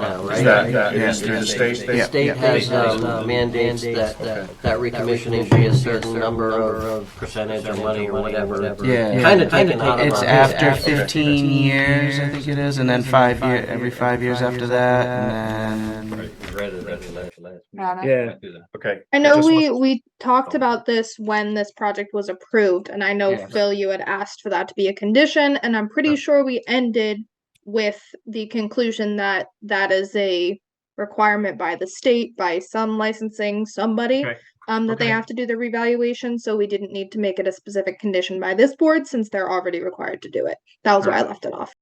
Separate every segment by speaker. Speaker 1: now,
Speaker 2: Is
Speaker 1: right?
Speaker 2: that, that
Speaker 3: Yeah.
Speaker 2: is through the state?
Speaker 1: The
Speaker 2: they-
Speaker 3: Yeah.
Speaker 1: state has uh, mandates that,
Speaker 2: Okay.
Speaker 1: that recommissioning should be a certain number of percentage or money or whatever.
Speaker 3: Yeah.
Speaker 1: Kind of taken out of.
Speaker 3: It's
Speaker 1: our-
Speaker 3: after 15 years, I think it is, and then five year, every five years after that, and then.
Speaker 4: Donna.
Speaker 5: Yeah,
Speaker 2: Okay.
Speaker 6: I know
Speaker 2: just
Speaker 6: we we talked about this when this project was approved, and I know
Speaker 3: Yeah.
Speaker 6: Phil, you had asked for that to be a condition, and I'm pretty sure we ended with the conclusion that that is a requirement by the state, by some licensing somebody,
Speaker 5: Okay.
Speaker 6: um, that they
Speaker 5: Okay.
Speaker 6: have to do the revaluation. So we didn't need to make it a specific condition by this board since they're already required to do it. That was why I left it off.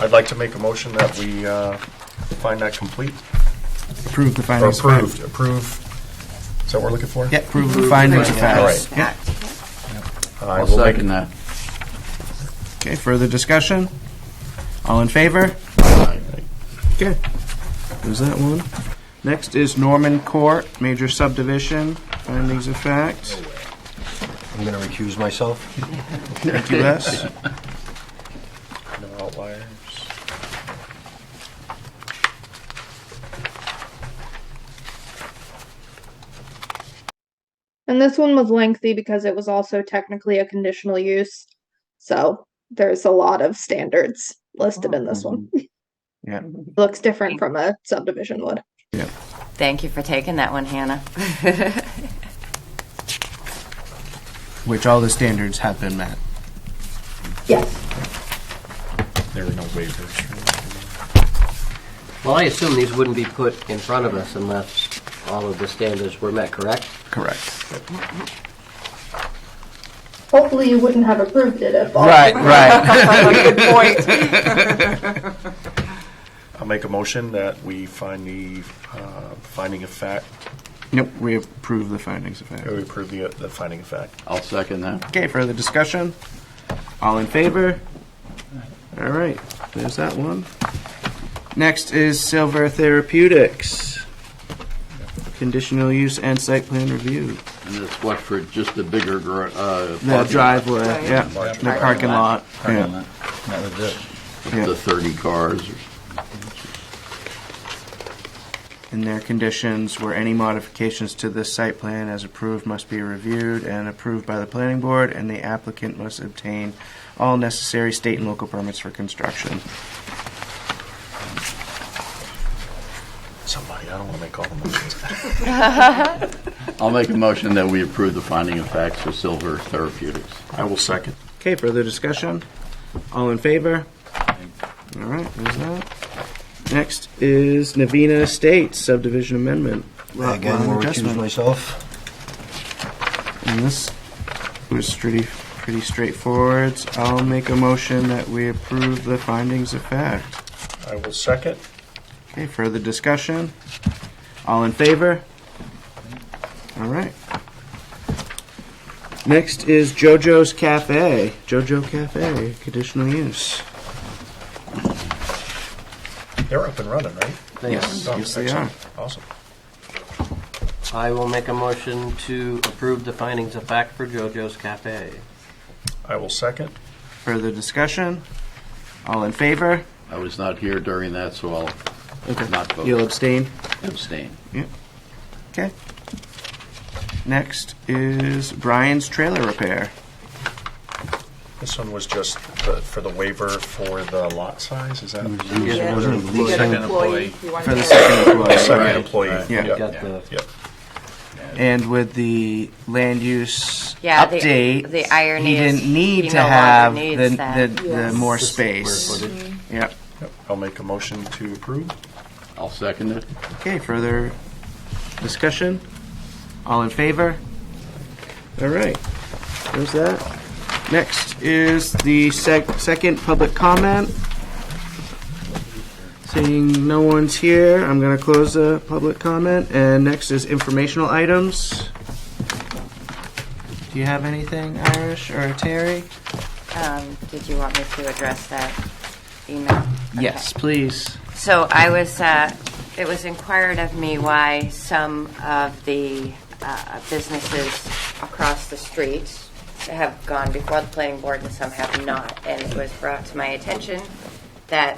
Speaker 2: I'd like to make a motion that we uh, find that complete,
Speaker 3: Prove the
Speaker 2: or
Speaker 3: findings of fact.
Speaker 2: approved, approved. Is that what we're looking for?
Speaker 3: Yeah, prove the findings of
Speaker 2: All
Speaker 3: fact.
Speaker 2: right.
Speaker 3: Yeah.
Speaker 2: I will make,
Speaker 7: that.
Speaker 3: Okay, further discussion? All in favor? Okay, there's that one. Next is Norman Court, major subdivision, findings of fact.
Speaker 8: I'm going to recuse myself.
Speaker 3: Thank you, Les.
Speaker 2: no outliers.
Speaker 6: And this one was lengthy because it was also technically a conditional use. So there's a lot of standards listed in this one.
Speaker 3: Yeah.
Speaker 6: Looks different from a subdivision would.
Speaker 9: Thank you for taking that one, Hannah.
Speaker 3: Which all the standards have been met.
Speaker 2: There were no waivers.
Speaker 1: Well, I assume these wouldn't be put in front of us unless all of the standards were met, correct?
Speaker 3: Correct.
Speaker 6: Hopefully you wouldn't have approved it if all.
Speaker 3: Right, right.
Speaker 2: I'll make a motion that we find the uh, finding of fact,
Speaker 3: Nope, we approve the findings of fact.
Speaker 2: or we approve the the finding of fact.
Speaker 7: I'll second that.
Speaker 3: Okay, further discussion? All in favor? All right, there's that one. Next is Silver Therapeutics. Conditional use and site plan review.
Speaker 7: And it's what for just the bigger, gr- uh.
Speaker 3: The driveway, yeah,
Speaker 2: Large
Speaker 3: the parking lot, yeah.
Speaker 5: that was it.
Speaker 3: yeah.
Speaker 7: The thirty cars.
Speaker 3: And their conditions were any modifications to this site plan as approved must be reviewed and approved by the planning board, and the applicant must obtain all necessary state and local permits for construction.
Speaker 2: Somebody, I don't want to make all the motions.
Speaker 7: I'll make a motion that we approve the finding of facts for Silver Therapeutics.
Speaker 2: I will second.
Speaker 3: Okay, further discussion? All in favor? All right, there's that. Next is Navina Estates subdivision amendment. lot
Speaker 8: Again,
Speaker 3: line
Speaker 8: will recuse
Speaker 3: adjustment.
Speaker 8: myself.
Speaker 3: And this was pretty, pretty straightforward. I'll make a motion that we approve the findings of fact.
Speaker 2: I will second.
Speaker 3: Okay, further discussion? All in favor? All right. Next is JoJo's Cafe. JoJo Cafe, conditional use.
Speaker 2: They're up and running, right?
Speaker 3: Yes,
Speaker 2: Oh,
Speaker 3: yes they are.
Speaker 2: excellent. Awesome.
Speaker 1: I will make a motion to approve the findings of fact for JoJo's Cafe.
Speaker 2: I will second.
Speaker 3: Further discussion? All in favor?
Speaker 7: I was not here during that, so I'll not
Speaker 3: You'll
Speaker 7: vote,
Speaker 3: abstain?
Speaker 7: abstain.
Speaker 3: Okay. Next is Brian's Trailer Repair.
Speaker 2: This one was just the- for the waiver for the lot size, is that?
Speaker 1: Yeah.
Speaker 5: Second employee.
Speaker 3: For the second employee.
Speaker 2: Second employee.
Speaker 3: Yeah.
Speaker 1: Got the-
Speaker 2: yeah.
Speaker 3: And with the land use
Speaker 9: Yeah, the-
Speaker 3: update.
Speaker 9: the
Speaker 3: He
Speaker 9: irony is
Speaker 3: didn't need
Speaker 9: he
Speaker 3: to
Speaker 9: no longer
Speaker 3: have the,
Speaker 9: needs that.
Speaker 3: the, the
Speaker 4: Yes.
Speaker 3: more
Speaker 1: the
Speaker 3: space.
Speaker 1: square footage.
Speaker 3: Yep.
Speaker 2: Yep. I'll make a motion to approve.
Speaker 7: I'll second it.
Speaker 3: Okay, further discussion? All in favor? All right, there's that. Next is the sec- second public comment. Seeing no one's here, I'm gonna close the public comment, and next is informational items. Do you have anything, Irish or Terry?
Speaker 9: Um, Did you want me to address that email?
Speaker 3: Yes, please.
Speaker 9: So I was, uh, it was inquired of me why some of the uh, businesses across the street have gone before the planning board and some have not. And it was brought to my attention that